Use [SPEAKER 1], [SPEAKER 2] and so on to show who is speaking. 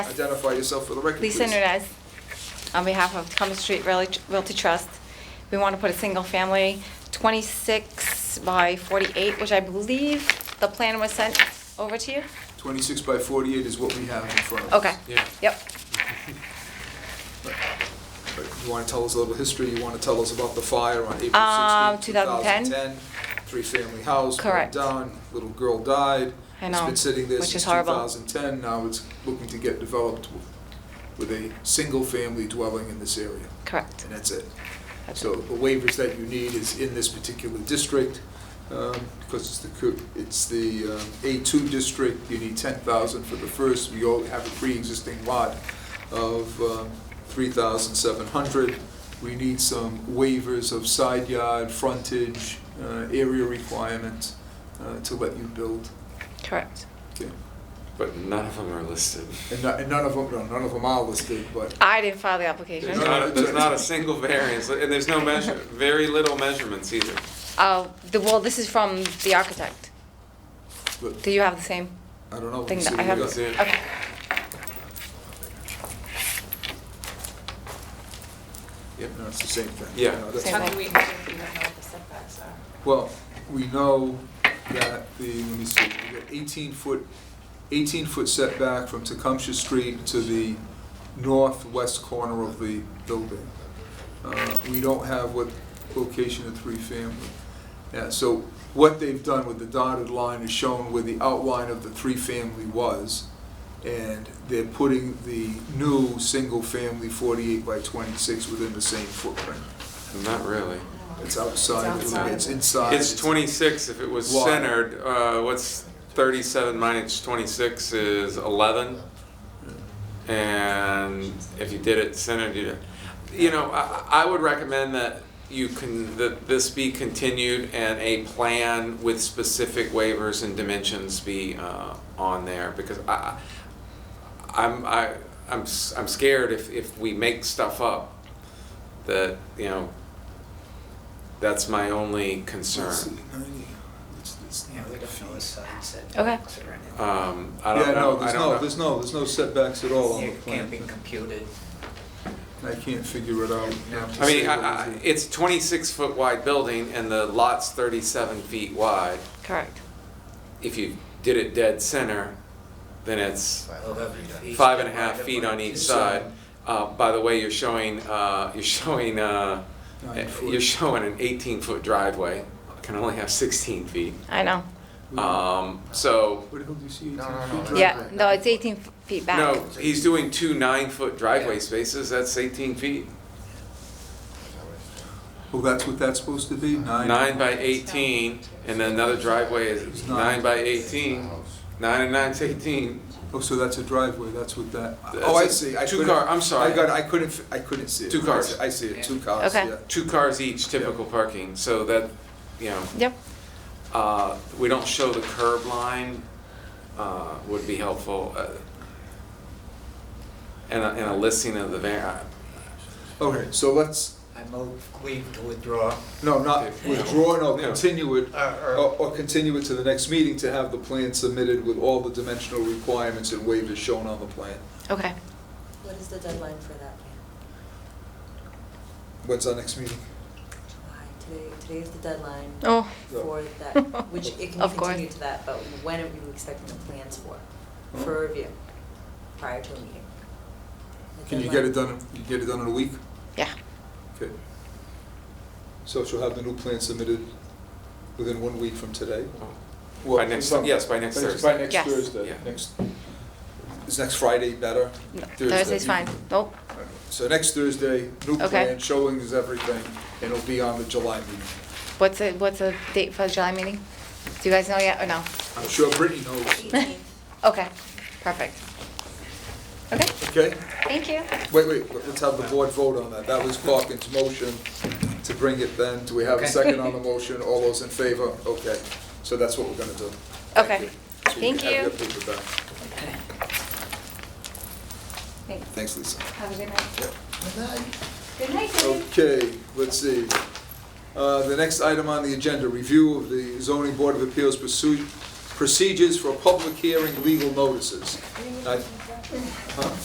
[SPEAKER 1] Identify yourself for the record, please.
[SPEAKER 2] Lisa Nunez, on behalf of Cumberland Street Realty Realty Trust. We want to put a single-family 26 by 48, which I believe the plan was sent over to you?
[SPEAKER 1] 26 by 48 is what we have in front of us.
[SPEAKER 2] Okay.
[SPEAKER 3] Yeah.
[SPEAKER 2] Yep.
[SPEAKER 1] But You want to tell us a little history? You want to tell us about the fire on April
[SPEAKER 2] Um,
[SPEAKER 1] 16,
[SPEAKER 2] 2010?
[SPEAKER 1] 2010? Three-family house, burned
[SPEAKER 2] Correct.
[SPEAKER 1] down, little girl died.
[SPEAKER 2] I know,
[SPEAKER 1] It's been sitting there
[SPEAKER 2] which is
[SPEAKER 1] since
[SPEAKER 2] horrible.
[SPEAKER 1] 2010. Now it's looking to get developed with a single-family dwelling in this area,
[SPEAKER 2] Correct.
[SPEAKER 1] and that's it.
[SPEAKER 2] That's
[SPEAKER 1] So the waivers that you need is in this particular district, um, because it's the, co- it's the um, A2 district, you need 10,000 for the first, we all have a pre-existing lot of um, 3,700. We need some waivers of side yard, frontage, uh, area requirements uh, to let you build.
[SPEAKER 2] Correct.
[SPEAKER 1] Okay.
[SPEAKER 3] But none of them are listed.
[SPEAKER 1] And no- and none of them, no, none of them are listed, but
[SPEAKER 2] I didn't file the application.
[SPEAKER 3] There's not, a- there's not a single variance, and there's no measure, very little measurements either.
[SPEAKER 2] Oh, the, well, this is from the architect.
[SPEAKER 1] but
[SPEAKER 2] Do you have the same
[SPEAKER 1] I don't know.
[SPEAKER 3] Oh,
[SPEAKER 1] We'll
[SPEAKER 2] thing
[SPEAKER 1] see
[SPEAKER 2] that I have?
[SPEAKER 1] what we got.
[SPEAKER 3] see it.
[SPEAKER 2] Okay.
[SPEAKER 1] Yep, no, it's the same thing.
[SPEAKER 3] Yeah.
[SPEAKER 1] No, that's-
[SPEAKER 2] Same
[SPEAKER 4] How
[SPEAKER 2] thing.
[SPEAKER 4] do we know if we don't know what the setbacks are?
[SPEAKER 1] Well, we know that the, let me see, we got eighteen foot, eighteen foot setback from Tecumseh Street to the northwest corner of the building. Uh, we don't have what location of three family. Yeah, so what they've done with the dotted line is shown where the outline of the three family was. And they're putting the new single family forty-eight by twenty-six within the same footprint.
[SPEAKER 3] Not really.
[SPEAKER 1] It's outside,
[SPEAKER 4] It's
[SPEAKER 1] of the- it's
[SPEAKER 4] outside.
[SPEAKER 1] inside.
[SPEAKER 3] It's twenty-six if it was
[SPEAKER 1] Why?
[SPEAKER 3] centered, uh, what's thirty-seven minus twenty-six is eleven. And if you did it centered, you, you know, I, I would recommend that you can, that this be continued and a plan with specific waivers and dimensions be, uh, on there, because I, I- I'm, I, I'm, s- I'm scared if, if we make stuff up, that, you know, that's my only concern.
[SPEAKER 5] Yeah, we don't know the side setbacks
[SPEAKER 2] setbacks
[SPEAKER 5] or anything.
[SPEAKER 3] Um, I don't
[SPEAKER 1] Yeah,
[SPEAKER 3] know,
[SPEAKER 1] no,
[SPEAKER 3] I
[SPEAKER 1] there's
[SPEAKER 3] don't know.
[SPEAKER 1] no, there's no, there's no setbacks at
[SPEAKER 3] Oh.
[SPEAKER 1] all on the
[SPEAKER 5] It can't be
[SPEAKER 1] plan.
[SPEAKER 5] computed.
[SPEAKER 1] I can't figure it out.
[SPEAKER 5] No.
[SPEAKER 1] To
[SPEAKER 3] I
[SPEAKER 1] say
[SPEAKER 3] mean,
[SPEAKER 1] what
[SPEAKER 3] I, I,
[SPEAKER 1] it is.
[SPEAKER 3] it's twenty-six foot wide building and the lot's thirty-seven feet wide.
[SPEAKER 2] Correct.
[SPEAKER 3] If you did it dead center, then it's
[SPEAKER 5] Eleven feet.
[SPEAKER 3] five and a half feet on each
[SPEAKER 1] Each
[SPEAKER 3] side.
[SPEAKER 1] side.
[SPEAKER 3] Uh, by the way, you're showing, uh, you're showing, uh,
[SPEAKER 1] Nine
[SPEAKER 3] you're
[SPEAKER 1] foot.
[SPEAKER 3] showing an eighteen-foot driveway, can only have sixteen feet.
[SPEAKER 2] I know.
[SPEAKER 3] Um, so,
[SPEAKER 1] Where the hell do you see
[SPEAKER 5] No, no,
[SPEAKER 1] eighteen
[SPEAKER 5] no,
[SPEAKER 1] feet?
[SPEAKER 5] that's-
[SPEAKER 2] Yeah, no, it's 18 f- feet back.
[SPEAKER 3] no, he's doing two nine-foot driveway spaces, that's eighteen feet.
[SPEAKER 1] Well, Oh, that's what that's supposed to be, nine?
[SPEAKER 3] Nine by eighteen, and then another driveway is nine by eighteen. Nine and nine's eighteen.
[SPEAKER 1] Oh, so that's a driveway, that's what that,
[SPEAKER 3] That's
[SPEAKER 1] oh, I
[SPEAKER 3] a
[SPEAKER 1] see. I
[SPEAKER 3] two
[SPEAKER 1] couldn't-
[SPEAKER 3] car- I'm sorry.
[SPEAKER 1] I got, I couldn't, fi- I couldn't see it.
[SPEAKER 3] Two cars.
[SPEAKER 1] I see it, two cars,
[SPEAKER 2] Okay.
[SPEAKER 1] yeah.
[SPEAKER 3] Two cars each, typical parking, so that, you know,
[SPEAKER 2] Yep.
[SPEAKER 3] uh, we don't show the curb line, uh, would be helpful. uh, And a, and a listing of the var,
[SPEAKER 1] Okay, so let's,
[SPEAKER 5] I move, we to withdraw,
[SPEAKER 1] no, not
[SPEAKER 3] Yeah.
[SPEAKER 1] withdraw, no,
[SPEAKER 3] Yeah.
[SPEAKER 1] continue it,
[SPEAKER 5] or, Uh, or
[SPEAKER 1] or, or continue it to the next meeting to have the plan submitted with all the dimensional requirements and waivers shown on the plan.
[SPEAKER 2] Okay.
[SPEAKER 6] What is the deadline for that plan?
[SPEAKER 1] When's our next meeting?
[SPEAKER 6] July, today, today is the deadline
[SPEAKER 2] Oh,
[SPEAKER 6] for that, which it can
[SPEAKER 2] Of course.
[SPEAKER 6] continue to that, but when are you expecting the plans for,
[SPEAKER 1] Oh.
[SPEAKER 2] Hmm.
[SPEAKER 6] for review, prior to a meeting? The
[SPEAKER 1] Can you get it
[SPEAKER 6] deadline-
[SPEAKER 1] done, you get it done in a week?
[SPEAKER 2] yeah.
[SPEAKER 1] Okay. So she'll have the new plan submitted within one week from today?
[SPEAKER 3] uh, by next, yes, by next
[SPEAKER 1] By
[SPEAKER 3] Thursday.
[SPEAKER 1] next
[SPEAKER 2] Yes.
[SPEAKER 1] Thursday,
[SPEAKER 3] Yeah.
[SPEAKER 1] next, is next Friday better?
[SPEAKER 2] No,
[SPEAKER 1] Thursday.
[SPEAKER 2] Thursday's fine. Nope.
[SPEAKER 1] So next Thursday, new
[SPEAKER 2] Okay.
[SPEAKER 1] plan, showing is everything, and it'll be on the July meeting.
[SPEAKER 2] What's the, what's the date for the July meeting? Do you guys know yet or no?
[SPEAKER 1] I'm sure Brittany knows,
[SPEAKER 2] Okay, perfect. Okay,
[SPEAKER 1] okay?
[SPEAKER 2] thank you.
[SPEAKER 1] Wait, wait, let- let's have the board vote on that. That was Hawkins' motion to bring it then. Do we have a
[SPEAKER 5] Okay.
[SPEAKER 1] second on the motion? All those in favor? Okay, so that's what we're gonna do. Thank
[SPEAKER 2] Okay.
[SPEAKER 1] you. So can
[SPEAKER 2] Thank
[SPEAKER 1] have
[SPEAKER 2] you.
[SPEAKER 1] your paper back.
[SPEAKER 2] Thanks.
[SPEAKER 1] Thanks, Lisa.
[SPEAKER 2] Have a good night. Good night, Dave.
[SPEAKER 1] Okay, let's see. Uh, The next item on the agenda, review of the zoning board of appeals pursuit, procedures for public hearing legal notices. I Huh?